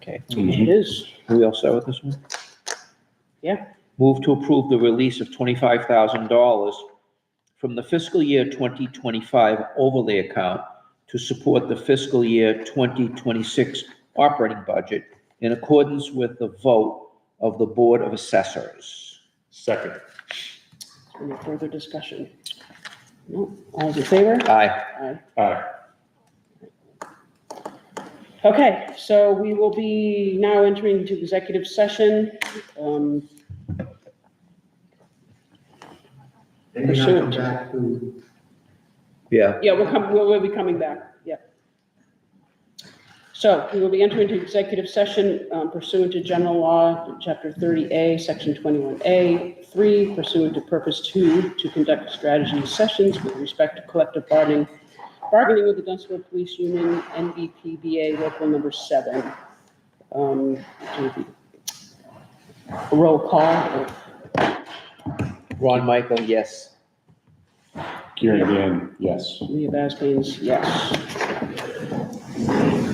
Okay, Mhm. it is. Are we all set with this one? Yeah. Move to approve the release of twenty-five thousand dollars from the fiscal year twenty twenty-five overlay account to support the fiscal year twenty twenty-six operating budget in accordance with the vote of the Board of Assessors. Second. Any further discussion? No, all's in favor? Aye. Aye. Aye. Okay, so we will be now entering into executive session. Um, They may not come Pursuant. back to, Yeah. Yeah, we'll come, we'll, we'll be coming back, yeah. So we will be entering into executive session um, pursuant to general law, chapter thirty A, section twenty-one A, three pursuant to purpose two, to conduct strategy sessions with respect to collective bargaining, bargaining with the Dunstable Police Union, NBPBA local number seven. Um, do the Roll call, Ron Michael, yes. Kieran Dan, yes. Leah Baskins, yes.